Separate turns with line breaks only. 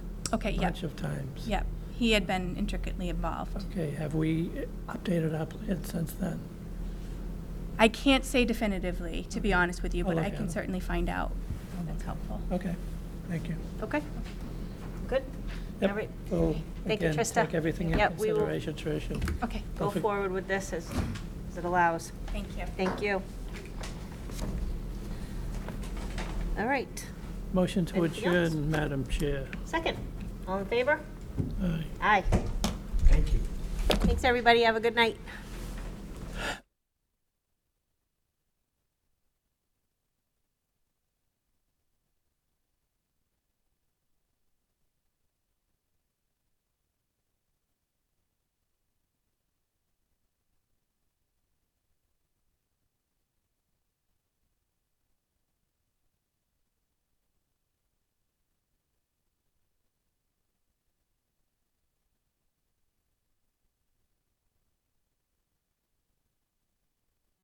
Okay,
a
yeah.
bunch of times.
Yep, he had been intricately involved.
Okay, have we updated our plan since then?
I can't say definitively, to be honest with you,
I'll
but I
look at
can
it. Oh,
certainly find out. That's helpful.
Okay, thank you.
Okay, good.
Yep,
All right,
So,
Thank you,
again,
Trista.
take everything in
Yep, we will-
consideration, Tricia.
Okay,
go
Perfect.
forward with this as, as it allows.
thank you.
Thank you. All right,
Motion to
Anything else?
adjourn, Madam Chair.
second, all in favor?
Aye.
Aye.
Thank you.
Thanks, everybody, have a good night.